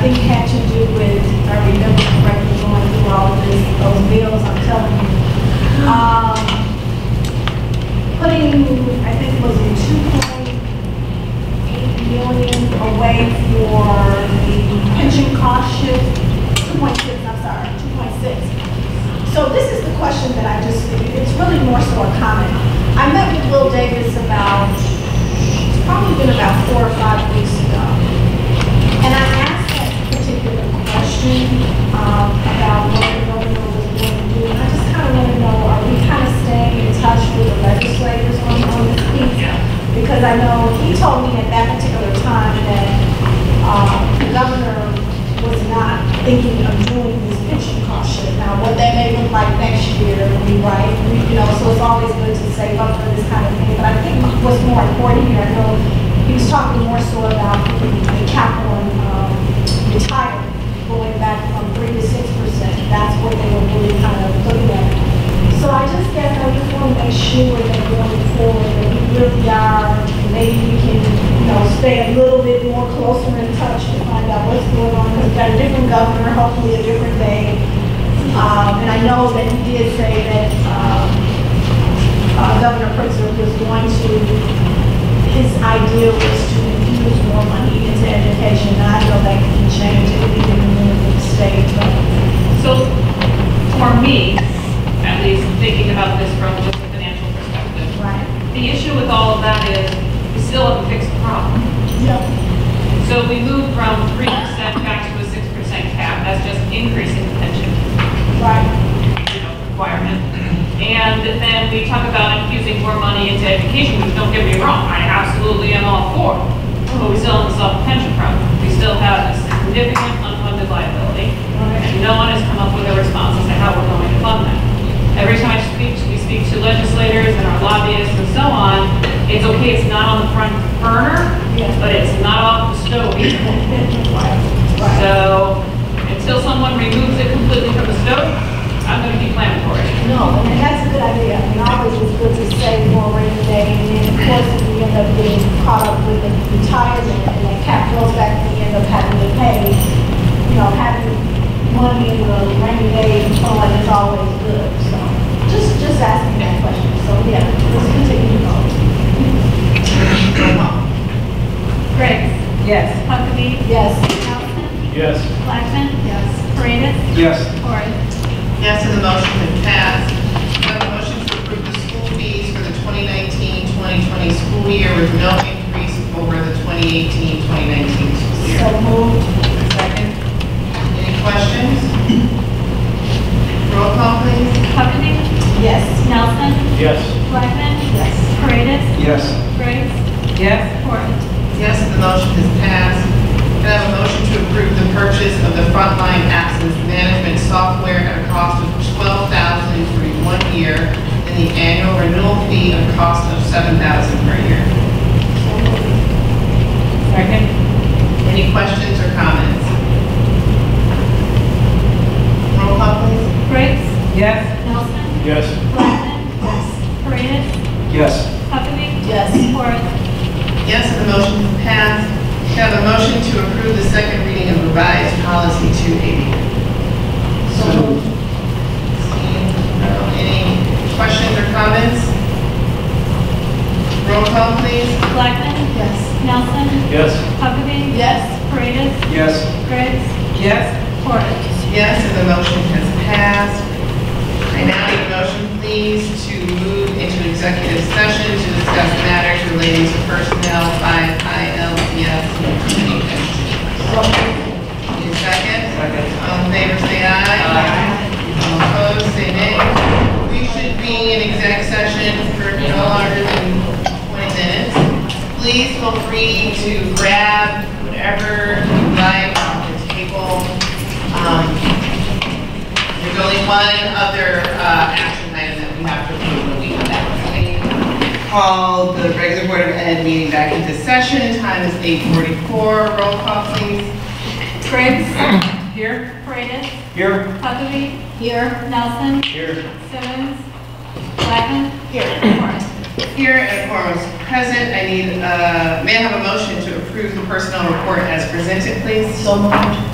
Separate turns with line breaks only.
think had to do with, if I remember correctly, going through all of this, those bills, I'm telling you. Um, Putting, I think it was a two point eight million away for the pension cost shift, two point six, I'm sorry, two point six. So this is the question that I just, it's really more so a comment. I met with Will Davis about, it's probably been about four or five weeks ago. And I asked that particular question um, about what the governor was going to do. And I just kind of want to know, are we kind of staying in touch with the legislators on on this piece? Because I know he told me at that particular time that um, the governor was not thinking of doing this pension cost shit. Now, what that may look like next year, we right, we- you know, so it's always good to save up for this kind of thing. But I think what's more important here, I know he was talking more so about the capital and um, retirement, going back from three to six percent. That's what they were really kind of looking at. So I just guess I just want to make sure that going forward, that we really are, maybe we can, you know, stay a little bit more closer in touch to find out what's going on. Because we've got a different governor, hopefully a different day. Um, and I know that he did say that, um, uh, Governor Pritzker was going to his idea was to infuse more money into education. Now, I know that can change anything in the state, but
So for me, at least thinking about this from just a financial perspective,
right.
the issue with all of that is we still have a fixed problem.
Yep.
So we moved from 3% back to a 6% cap. That's just increasing the pension
Right.
you know, requirement. And then we talk about infusing more money into education, which don't get me wrong, I absolutely am all for. But we still haven't solved the pension problem. We still have a significant unfunded liability. And no one has come up with a response as to how we're going to fund that. Every time I speak, we speak to legislators and our lobbyists and so on, it's okay, it's not on the front burner,
Yeah.
but it's not off the stove either.
Right.
So until someone removes it completely from the stove, I'm going to keep planning for it.
No, and that's a good idea. I mean, always it's good to save more rainy day, and then of course, if we end up getting caught up with the retirement, and that cap goes back, and we end up having to pay, you know, having money in the rainy day fund is always good, so. Just, just asking that question, so yeah, let's continue to go.
Briggs.
Yes.
Huckabee.
Yes.
Nelson.
Yes.
Blackman. Yes. Paredes.
Yes.
Corrigan.
Yes, and the motion has passed. We have a motion to approve the school fees for the 2019-2020 school year with no increase over the 2018-2019 school year.
So moved.
Second. Any questions? Roll call, please.
Huckabee.
Yes.
Nelson.
Yes.
Blackman. Yes. Paredes.
Yes.
Briggs.
Yes.
Corrigan.
Yes, and the motion has passed. Can I have a motion to approve the purchase of the frontline absence management software at a cost of $12,000 for one year and the annual renewal fee at a cost of $7,000 per year?
Second?
Any questions or comments? Roll call, please.
Briggs.
Yes.
Nelson.
Yes.
Blackman. Yes. Paredes.
Yes.
Huckabee.
Yes.
Corrigan.
Yes, and the motion is passed. Can I have a motion to approve the second reading of revised policy 280?
So moved.
Seeing none, Any questions or comments? Roll call, please.
Blackman.
Yes.
Nelson.
Yes.
Huckabee.
Yes.
Paredes.
Yes.
Briggs.
Yes.
Corrigan.
Yes, and the motion has passed. I now need a motion, please, to move into executive session to discuss matters relating to personnel by ILCS. Need a second? Second. All in favor, say aye. All opposed, say nay. We should be in exec session for no longer than 20 minutes. Please feel free to grab whatever you like off the table. Um, There's only one other uh, action item that we have to approve when we come back. Okay? Call the regular Board of Ed meeting back into session. Time is 8:44. Roll call, please.
Briggs.
Here?
Paredes.
Here.
Huckabee.
Here.
Nelson.
Here.
Simmons. Blackman.
Here.
Corrigan.
Here and a quorum is present. I need, uh, may I have a motion to approve the personnel report as presented, please?
So moved.